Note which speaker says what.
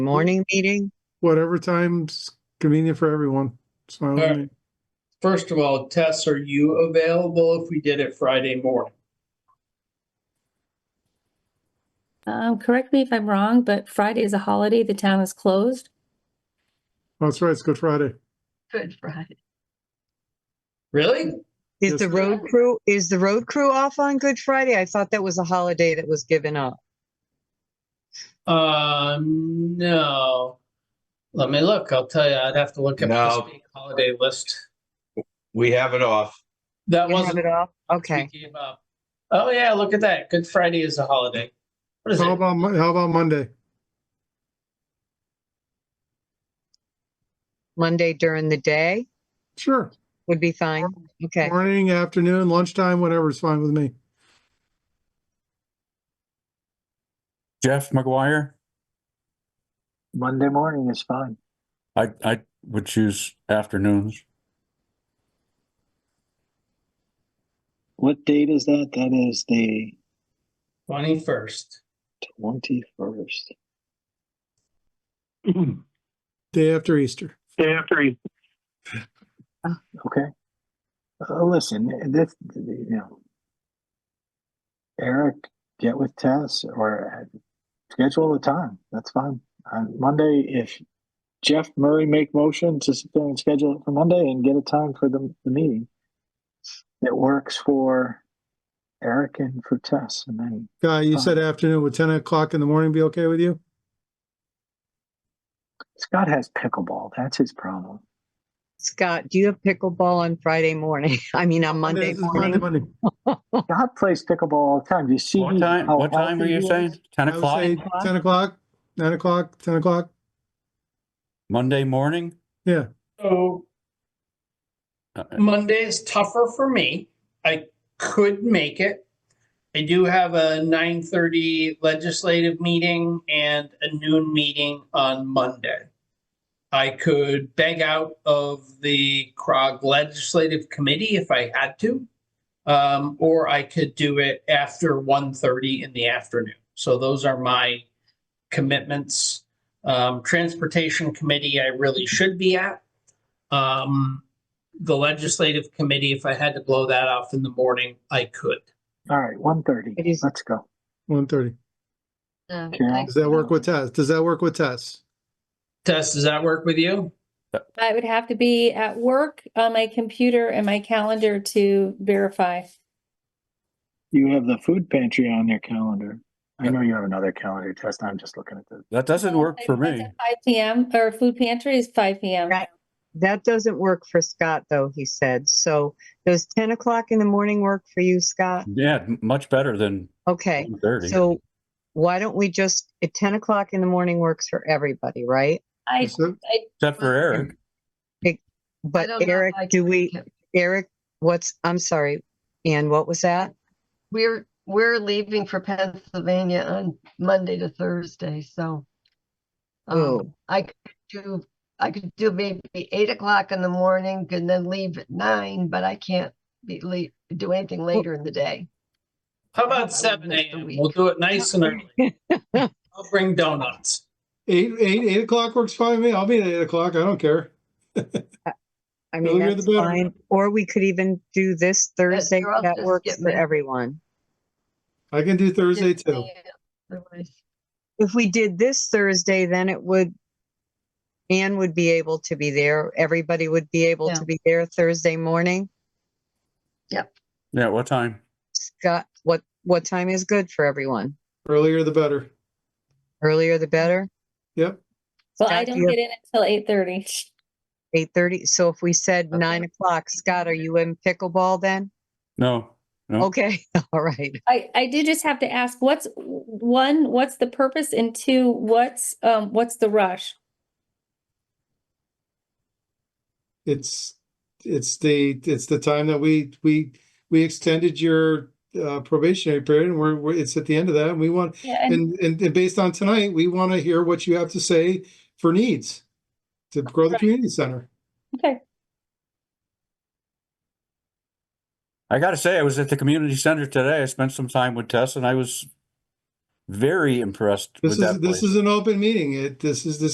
Speaker 1: morning meeting?
Speaker 2: whatever time's convenient for everyone. It's fine with
Speaker 3: Alright.
Speaker 2: me.
Speaker 3: First of all, Tess, are you available if we did it Friday morning?
Speaker 4: Um, correct me if I'm wrong, but Friday is a holiday. The town is closed.
Speaker 2: Oh, That's right, it's Good Friday.
Speaker 5: Good Friday.
Speaker 3: Really?
Speaker 2: Yes.
Speaker 1: Is the road crew, is the road crew off on Good Friday? I thought that was a holiday that was given up.
Speaker 3: Uh, no. Let me look. I'll tell you, I'd have to look up
Speaker 6: No.
Speaker 3: the state holiday list.
Speaker 6: We have it off.
Speaker 3: That
Speaker 1: You have
Speaker 3: wasn't
Speaker 1: it off?
Speaker 3: we
Speaker 1: Okay,
Speaker 3: gave up. Oh yeah, look at that. Good Friday is a holiday. What is
Speaker 2: How
Speaker 3: it?
Speaker 2: about, Mon- how about Monday?
Speaker 1: Monday during the day
Speaker 2: Sure.
Speaker 1: would be fine. Okay,
Speaker 2: Morning, afternoon, lunchtime, whatever is fine with me.
Speaker 7: Jeff McGuire,
Speaker 8: Monday morning is fine.
Speaker 7: I, I would choose afternoons.
Speaker 8: What date is that? That is the
Speaker 3: Twenty first.
Speaker 8: twenty-first.
Speaker 2: Day after Easter.
Speaker 8: Day after Okay. Uh, listen, this, you know. Eric, get with Tess or uh, schedule a time. That's fine. On Monday, if Jeff Murray make motion to sit there and schedule it for Monday and get a time for the, the meeting. That works for Eric and for Tess and then
Speaker 2: Guy, you said afternoon, would ten o'clock in the morning be okay with you?
Speaker 8: Scott has pickleball. That's his problem.
Speaker 1: Scott, do you have pickleball on Friday morning? I mean, on Monday
Speaker 2: This is Monday,
Speaker 1: morning?
Speaker 2: Monday.
Speaker 8: Scott plays pickleball all the time. Do you see
Speaker 7: What time,
Speaker 8: how
Speaker 7: what time are
Speaker 8: healthy
Speaker 7: you
Speaker 8: he
Speaker 7: saying?
Speaker 8: is?
Speaker 7: Ten
Speaker 2: Oh, I would
Speaker 7: o'clock,
Speaker 2: say ten o'clock, nine o'clock, ten o'clock.
Speaker 7: Monday morning?
Speaker 3: So
Speaker 7: Uh,
Speaker 3: Monday is tougher for me. I could make it. I do have a nine thirty legislative meeting and a noon meeting on Monday. I could beg out of the CROG Legislative Committee if I had to. Um, or I could do it after 1:30 in the afternoon. So those are my commitments. Um, Transportation Committee, I really should be at. Um, the legislative committee, if I had to blow that off in the morning, I could.
Speaker 8: All right, one thirty.
Speaker 1: It is-
Speaker 8: Let's go.
Speaker 2: One thirty.
Speaker 5: Um,
Speaker 8: Carol,
Speaker 5: I-
Speaker 2: Does that work with Tess? Does that work with Tess?
Speaker 3: Tess, does that work with you?
Speaker 4: I would have to be at work on my computer and my calendar to verify.
Speaker 8: You have the food pantry on your calendar. I know you have another calendar test. I'm just looking at the.
Speaker 7: That doesn't work for me.
Speaker 4: Five PM or food pantry is five PM.
Speaker 1: Right. That doesn't work for Scott, though, he said. So does ten o'clock in the morning work for you, Scott?
Speaker 7: Yeah, m- much better than
Speaker 1: Okay,
Speaker 7: thirty.
Speaker 1: so why don't we just, at ten o'clock in the morning works for everybody, right?
Speaker 4: I,
Speaker 2: So-
Speaker 7: Except for
Speaker 1: um,
Speaker 7: Eric,
Speaker 5: I
Speaker 1: But
Speaker 5: don't know if
Speaker 1: Eric,
Speaker 5: I
Speaker 1: do
Speaker 5: can
Speaker 1: we,
Speaker 5: make it.
Speaker 1: Eric, what's, I'm sorry, Ann, what was that?
Speaker 5: We're, we're leaving for Pennsylvania on Monday to Thursday, so.
Speaker 1: Oh.
Speaker 5: Um, I could do, I could do maybe eight o'clock in the morning and then leave at nine, but I can't be late, do anything later in the day.
Speaker 3: How
Speaker 5: I would
Speaker 3: about seven
Speaker 5: miss the
Speaker 3: AM?
Speaker 5: week.
Speaker 3: We'll do it nice and early. I'll bring donuts.
Speaker 2: Eight, eight, eight o'clock works fine with me. I'll be at eight o'clock. I don't care.
Speaker 1: I
Speaker 2: The
Speaker 1: mean,
Speaker 2: earlier
Speaker 1: that's
Speaker 2: the better.
Speaker 1: fine. Or we could even do this Thursday.
Speaker 5: you're all
Speaker 1: That
Speaker 5: just
Speaker 1: works
Speaker 5: getting
Speaker 1: for
Speaker 5: it.
Speaker 1: everyone.
Speaker 2: I can do Thursday
Speaker 5: Didn't
Speaker 2: too.
Speaker 5: say it otherwise.
Speaker 1: If we did this Thursday, then it would, Ann would be able to be there. Everybody would be able
Speaker 5: Yeah.
Speaker 1: to be there Thursday morning.
Speaker 7: yeah, what time?
Speaker 1: Scott, what, what time is good for everyone?
Speaker 2: Earlier the better.
Speaker 1: Earlier the better?
Speaker 2: Yep.
Speaker 4: well, I
Speaker 1: Scott, do
Speaker 4: don't
Speaker 1: you-
Speaker 4: get in until eight thirty.
Speaker 1: Eight thirty, so if we said
Speaker 5: Okay.
Speaker 1: nine o'clock, Scott, are you in pickleball then?
Speaker 7: No, No.
Speaker 1: Okay, all right.
Speaker 4: I, I do just have to ask, what's, one, what's the purpose? And two, what's, um, what's the rush?
Speaker 2: It's, it's the, it's the time that we, we, we extended your uh, probationary period and we're, we're, it's at the end of that and we want,
Speaker 4: Yeah, and
Speaker 2: and, and, and based on tonight, we want to hear what you have to say for needs to grow the
Speaker 4: Right.
Speaker 2: community center.
Speaker 4: Okay.
Speaker 7: I gotta say, I was at the community center today. I spent some time with Tess and I was very impressed
Speaker 2: This
Speaker 7: with
Speaker 2: is,
Speaker 7: that
Speaker 2: this
Speaker 7: place.
Speaker 2: is an open meeting. It, this is, this